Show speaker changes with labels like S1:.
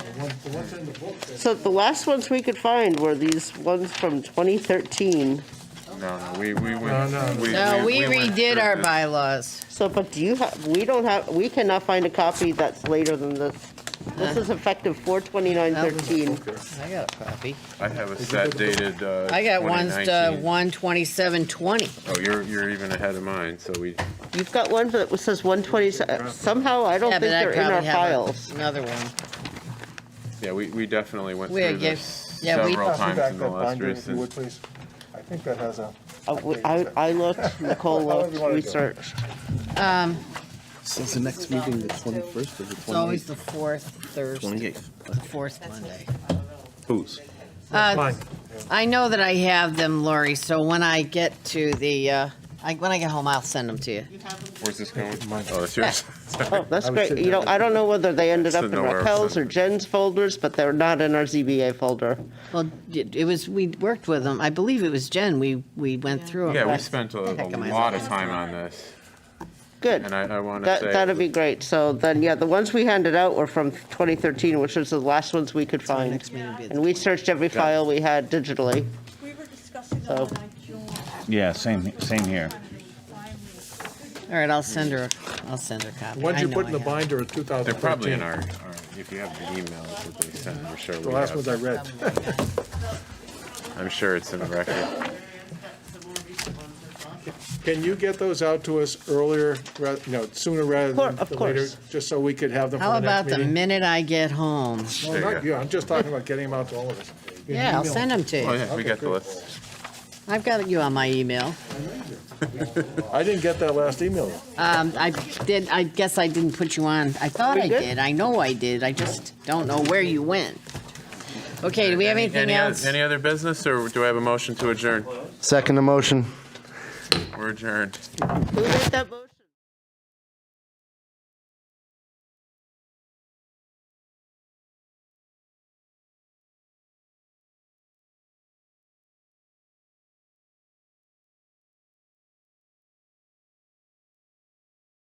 S1: What- the ones in the book that
S2: So the last ones we could find were these ones from 2013.
S3: No, no, we, we
S1: No, no.
S3: went. we-
S4: No, we
S3: went
S4: redid
S3: through
S4: our
S3: this.
S4: bylaws.
S2: So, but do you have, we don't have, we cannot find a copy that's later than this. This is effective 4/29/13.
S4: I got a copy.
S3: I have a set dated, uh.
S4: I got one's to
S3: 2019.
S4: one twenty-seven twenty.
S3: Oh, you're, you're even ahead of mine, so we,
S2: You've got one that says 120, somehow I don't
S4: Yeah,
S2: think
S4: but I
S2: they're in our
S4: probably have
S2: files.
S4: a- another one.
S3: yeah, we, we definitely went
S4: We
S3: through
S4: get-
S3: this
S4: yeah, we-
S3: several
S4: Pass
S1: Pass me
S3: times
S1: back
S3: in the
S1: that
S3: last
S1: binder, if you would,
S3: recent.
S1: please. I think that has a,
S2: Uh, we- I, I looked, Nicole
S1: However
S2: looked,
S1: you wanna do
S2: we
S1: it.
S2: searched.
S5: So it's the next meeting, the 21st or the
S4: It's always
S5: 28th?
S4: the fourth Thursday,
S5: 28th.
S4: the fourth Monday.
S5: Who's?
S4: Uh, I know that I have them, Lori, so when I get to the, uh, I, when I get home, I'll send them to you.
S3: Where's this going? Oh, it's yours.
S2: Oh, that's
S1: I was
S2: great.
S1: sitting
S2: You
S1: there
S2: know, I don't know whether they ended up in
S3: Sitting nowhere.
S2: Raquel's or Jen's folders, but they're not in our ZBA folder.
S4: Well, it it was, we worked with them. I believe it was Jen. We, we went through them.
S3: Yeah, we spent a, a
S4: Heck, am I
S3: lot of time on this,
S2: Good.
S3: and I, I wanna
S2: That,
S3: say.
S2: that'd be great. So then, yeah, the ones we handed out were from 2013, which was the last ones we could
S4: our
S2: find.
S4: next meeting will be the
S2: And we searched every file we had digitally.
S6: We were discussing
S2: So-
S6: them when I joined.
S7: Yeah, same, same here.
S4: All right, I'll send her, I'll send her a copy.
S1: the ones
S4: I
S1: you
S4: know
S1: put
S4: I
S1: in the
S4: have.
S1: binder are 2013.
S3: They're probably in our, our- if you have the emails that they send, I'm sure
S1: The
S3: we
S1: last ones I
S3: have.
S1: read.
S3: I'm sure it's in the record. Oh,
S1: Can you get those out to us earlier, ra- no, sooner rather
S2: Cour-
S1: than
S2: of
S1: later?
S2: course.
S1: Just so we could have them for
S4: How
S1: the
S4: about
S1: next
S4: the
S1: meeting?
S4: minute I get home?
S1: No,
S3: There you
S1: not
S3: go.
S1: you, I'm just talking about getting them out to all of us. You
S4: Yeah, I'll
S1: email
S4: send them to
S3: Oh,
S4: you.
S3: yeah, we
S1: Okay,
S3: got the
S1: good.
S3: list.
S4: I've got you on my email.
S1: I didn't get that last email.
S4: Um, I did, I guess I didn't put you on. I thought
S2: We
S4: I
S2: good?
S4: did. I know I did. I just don't know where you went. Okay, do we have
S3: Any-
S4: anything
S3: any oth-
S4: else?
S3: Any other business, or do I have a motion to adjourn?
S5: Second emotion.
S3: We're adjourned.
S2: Who made that motion?